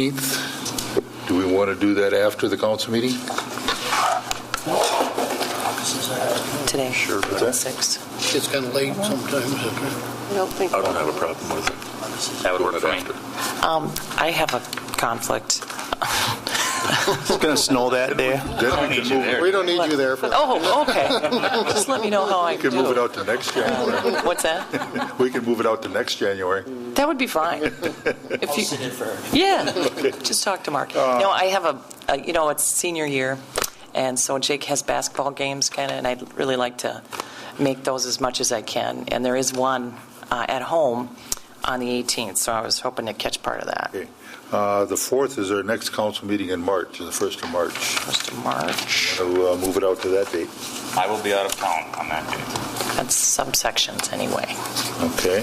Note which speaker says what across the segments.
Speaker 1: 18th. Do we want to do that after the council meeting?
Speaker 2: today.
Speaker 1: Sure.
Speaker 2: Six.
Speaker 3: It's kind of late sometimes. okay.
Speaker 2: I don't think,
Speaker 4: I don't have a problem with it. That would work for me.
Speaker 2: um, I have a conflict.
Speaker 5: It's going to snow that day.
Speaker 1: Then we can move-
Speaker 3: We don't need you there for that.
Speaker 2: Oh, okay. Just let me know how I
Speaker 1: we can move it
Speaker 2: do.
Speaker 1: out to next January.
Speaker 2: What's that?
Speaker 1: We can move it out to next January.
Speaker 2: That would be fine. If you Yeah, just talk to Mark.
Speaker 1: Uh,
Speaker 2: No, I have a- a, you know, it's senior year, and so Jake has basketball games kind of, and I'd really like to make those as much as I can. And there is one uh, at home on the 18th, so I was hoping to catch part of that.
Speaker 1: Okay. Uh, The 4th is our next council meeting in March, the 1st of March.
Speaker 2: First of March,
Speaker 1: So uh, move it out to that date.
Speaker 4: I will be out of town on that day.
Speaker 2: that's subsections anyway.
Speaker 1: Okay.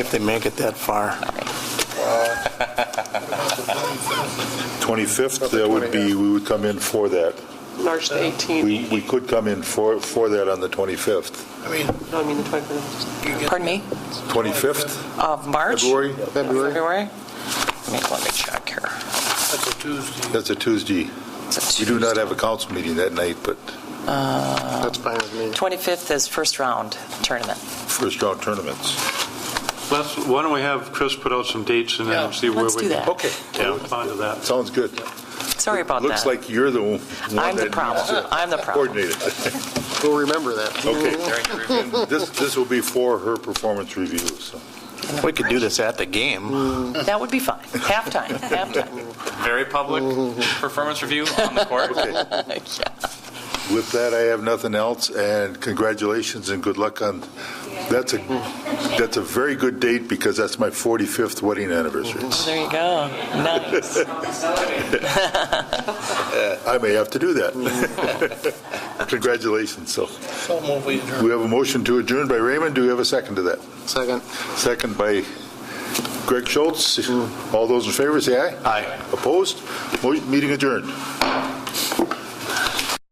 Speaker 5: If they make it that far.
Speaker 1: 25th, that would be, we would come in for that.
Speaker 6: March the 18th,
Speaker 1: We we could come in for for that on the 25th.
Speaker 3: I mean,
Speaker 6: no, I mean the 25th.
Speaker 3: you get
Speaker 2: Pardon me?
Speaker 1: 25th,
Speaker 2: Of March?
Speaker 1: February?
Speaker 3: February,
Speaker 2: February? Let me- Let me check here.
Speaker 3: that's a Tuesday.
Speaker 1: That's a Tuesday.
Speaker 2: It's a
Speaker 1: We do not have a council meeting that night, but
Speaker 3: That's fine with me.
Speaker 2: 25th is first round tournament.
Speaker 1: first round tournaments.
Speaker 7: Let's, why don't we have Chris put out some dates and
Speaker 3: Yeah.
Speaker 7: then see where we...
Speaker 2: Let's do that.
Speaker 1: Okay.
Speaker 7: Yeah, onto that.
Speaker 1: Sounds good.
Speaker 2: Sorry about that.
Speaker 1: Looks like you're the one that
Speaker 2: I'm the
Speaker 1: needs
Speaker 2: problem.
Speaker 1: to
Speaker 2: I'm the problem.
Speaker 1: coordinate it.
Speaker 3: We'll remember that.
Speaker 1: Okay. This, this will be for her performance review, so.
Speaker 5: We could do this at the game.
Speaker 2: That would be fine. Halftime, halftime.
Speaker 4: Very public performance review on the court.
Speaker 2: Yeah.
Speaker 1: With that, I have nothing else, and congratulations and good luck on, that's a, that's a very good date, because that's my 45th wedding anniversary.
Speaker 2: There you go. Nice.
Speaker 1: I may have to do that. Congratulations, so.
Speaker 3: So move we adjourn.
Speaker 1: We have a motion to adjourn by Raymond, do we have a second to that?
Speaker 3: Second.
Speaker 1: Second by Greg Schultz. All those in favor, say aye.
Speaker 5: Aye.
Speaker 1: Opposed? Mo- Meeting adjourned.